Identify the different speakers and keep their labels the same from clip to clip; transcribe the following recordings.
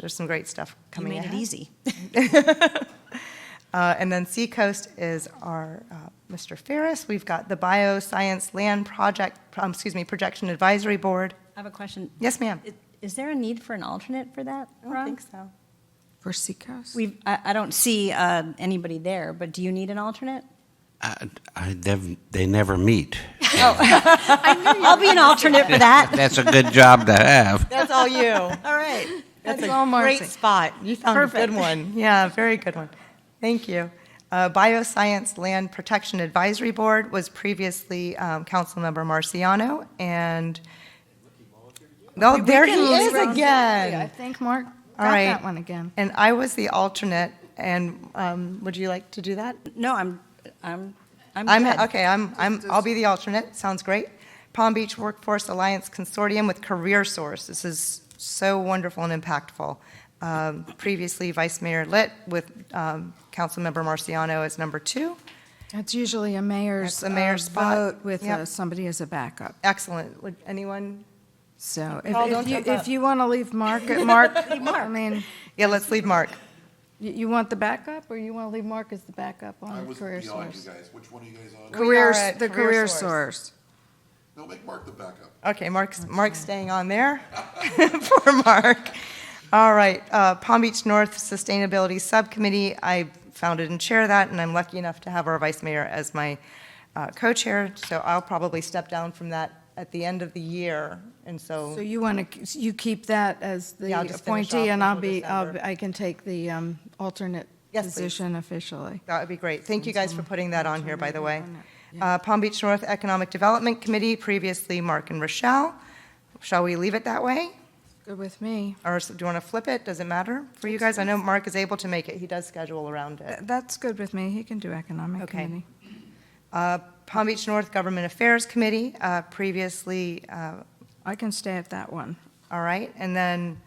Speaker 1: There's some great stuff
Speaker 2: You
Speaker 1: coming
Speaker 2: made
Speaker 1: ahead.
Speaker 2: it easy.
Speaker 1: Uh, And then Seacoast is our uh, Mr. Ferris. We've got the Bioscience Land Project, um, excuse me, Projection Advisory Board.
Speaker 3: I have a question.
Speaker 1: Yes, ma'am?
Speaker 3: I- Is there a need for an alternate for that, Rob?
Speaker 1: so.
Speaker 4: For Seacoast?
Speaker 3: We've, I, I don't see uh, anybody there, but do you need an alternate?
Speaker 5: I, I, they've- they never meet.
Speaker 3: I'll be an alternate for that.
Speaker 5: That's a good job to have.
Speaker 2: That's all you.
Speaker 3: All right.
Speaker 2: That's
Speaker 1: all
Speaker 2: a
Speaker 1: Marcy.
Speaker 2: great spot. You found a good
Speaker 1: Perfect.
Speaker 2: one.
Speaker 1: Yeah, very good one. Thank you. Uh, Bioscience Land Protection Advisory Board was previously um, Councilmember Marciano, and, oh, there he is
Speaker 4: I
Speaker 1: again.
Speaker 4: think Mark
Speaker 1: All
Speaker 4: got
Speaker 1: right.
Speaker 4: that one again.
Speaker 1: And I was the alternate, and um, would you like to do that?
Speaker 3: No, I'm, I'm, I'm
Speaker 1: I'm,
Speaker 3: good.
Speaker 1: okay, I'm, I'm, I'll be the alternate, sounds great. Palm Beach Workforce Alliance Consortium with Career Source, this is so wonderful and impactful. Um, Previously Vice Mayor Litt with um, Councilmember Marciano as number two.
Speaker 4: That's usually a mayor's
Speaker 1: That's a mayor's
Speaker 4: uh,
Speaker 1: spot.
Speaker 4: vote with
Speaker 1: Yep.
Speaker 4: uh, somebody as a backup.
Speaker 1: Excellent, would anyone,
Speaker 4: So
Speaker 1: Paul,
Speaker 4: if-
Speaker 1: don't
Speaker 4: if you,
Speaker 1: jump up.
Speaker 4: if you want to leave Mark, Mark, I mean,
Speaker 1: yeah, let's leave Mark.
Speaker 4: you, you want the backup or you want to leave Mark as the backup
Speaker 6: I
Speaker 4: on
Speaker 6: was
Speaker 4: Career
Speaker 6: beyond you
Speaker 4: Source?
Speaker 6: guys. Which one are you guys on?
Speaker 1: Career-
Speaker 4: Career,
Speaker 1: at
Speaker 4: the
Speaker 1: Career
Speaker 4: Career
Speaker 1: Source.
Speaker 4: Source.
Speaker 6: No, make Mark the backup.
Speaker 1: Okay, Mark's, Mark's staying on there. Poor Mark. All right, uh, Palm Beach North Sustainability Subcommittee, I founded and chair that, and I'm lucky enough to have our vice mayor as my uh, co-chair, so I'll probably step down from that at the end of the year, and so,
Speaker 4: So you want to, you keep that as the
Speaker 1: Yeah, I'll just finish off
Speaker 4: appointee and I'll
Speaker 1: until
Speaker 4: be, I'll,
Speaker 1: December.
Speaker 4: I can take the um, alternate
Speaker 1: Yes, please.
Speaker 4: position officially.
Speaker 1: that would be great. Thank you guys for putting that on here, by the way.
Speaker 4: Someone- someone
Speaker 1: Uh, Palm Beach North Economic Development Committee, previously Mark and Rochelle. Shall we leave it that way?
Speaker 4: Good with me.
Speaker 1: Or s- do you want to flip it? Does it matter for you guys? I know Mark is able to make it. He does schedule around it.
Speaker 4: Th- That's good with me. He can do Economic
Speaker 1: Okay.
Speaker 4: Committee.
Speaker 1: Uh, Palm Beach North Government Affairs Committee, uh, previously, uh,
Speaker 4: I can stay at that one.
Speaker 1: all right, and then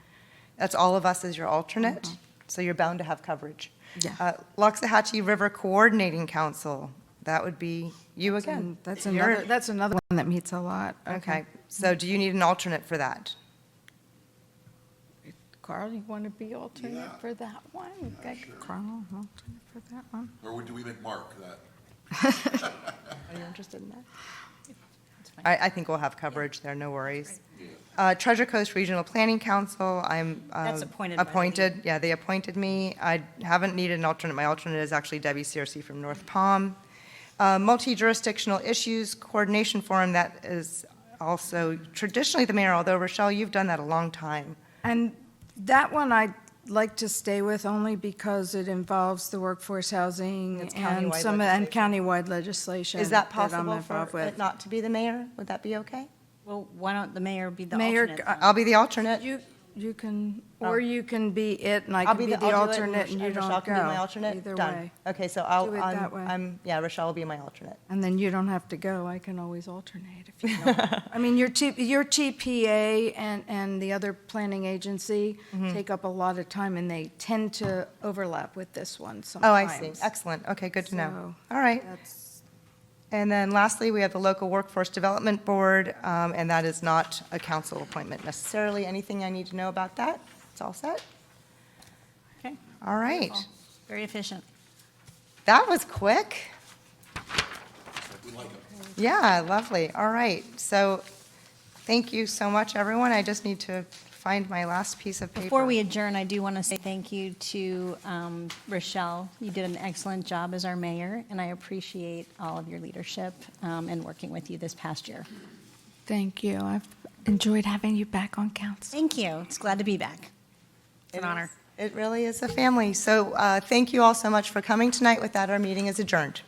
Speaker 1: that's all of us as your alternate, so you're bound to have coverage.
Speaker 4: Mm-hmm. Yeah.
Speaker 1: Uh, Loxahatchee River Coordinating Council, that would be you again.
Speaker 4: And Mm, that's
Speaker 1: You're-
Speaker 4: another, that's another one that meets a lot.
Speaker 1: Okay, so do you need an alternate for that?
Speaker 4: Carl, you want to be alternate for that one? Okay, Carl, alternate for that one.
Speaker 6: Or do we make Mark that?
Speaker 1: Are you interested in that? I, I think we'll have coverage there, no worries. Uh, Treasure Coast Regional Planning Council, I'm. uh,
Speaker 3: That's appointed by the league.
Speaker 1: Appointed, yeah, they appointed me. I haven't needed an alternate. My alternate is actually Debbie Searcy from North Palm. Uh, Multi-jurisdictional issues coordination forum, that is also traditionally the mayor, although Rochelle, you've done that a long time.
Speaker 4: And that one I'd like to stay with only because it involves the workforce housing
Speaker 1: It's
Speaker 4: and
Speaker 1: countywide
Speaker 4: some, of- and countywide legislation.
Speaker 1: Is that
Speaker 4: I'm
Speaker 1: possible for
Speaker 4: involved
Speaker 1: it
Speaker 4: with.
Speaker 1: not to be the mayor? Would that be okay?
Speaker 3: Well, why don't the mayor be the
Speaker 4: Mayor,
Speaker 3: alternate?
Speaker 4: I-
Speaker 3: then?
Speaker 1: I'll be the alternate.
Speaker 4: Uh, You, you can, or you can be it and I
Speaker 1: I'll
Speaker 4: can Oh. be the
Speaker 1: I'll do it,
Speaker 4: alternate and you
Speaker 1: Rochelle
Speaker 4: don't
Speaker 1: can be my
Speaker 4: go.
Speaker 1: alternate.
Speaker 4: Either
Speaker 1: Done.
Speaker 4: way.
Speaker 1: Okay, so I'll,
Speaker 4: Do it
Speaker 1: I'm-
Speaker 4: that way.
Speaker 1: I'm, yeah, Rochelle will be my alternate.
Speaker 4: And then you don't have to go, I can always alternate if you don't. I mean, your T, your TPA and, and the other planning agency
Speaker 1: Mm-hmm.
Speaker 4: take up a lot of time, and they tend to overlap with this one
Speaker 1: Oh,
Speaker 4: sometimes.
Speaker 1: I see. Excellent. Okay, good to know.
Speaker 4: So-
Speaker 1: All right.
Speaker 4: That's,
Speaker 1: And then lastly, we have the Local Workforce Development Board, um, and that is not a council appointment necessarily. Anything I need to know about that? It's all set?
Speaker 3: Okay.
Speaker 1: All right.
Speaker 3: Well, Very efficient.
Speaker 1: That was quick.
Speaker 6: We like him.
Speaker 1: Yeah, lovely. All right. So thank you so much, everyone. I just need to find my last piece of paper.
Speaker 3: Before we adjourn, I do want to say thank you to um, Rochelle. You did an excellent job as our mayor, and I appreciate all of your leadership um, and working with you this past year.
Speaker 4: thank you, I've enjoyed having you back on council.
Speaker 3: Thank you. It's glad to be back. It's an
Speaker 1: It
Speaker 3: honor.
Speaker 1: is- It really is a family. So uh, thank you all so much for coming tonight. With that, our meeting is adjourned.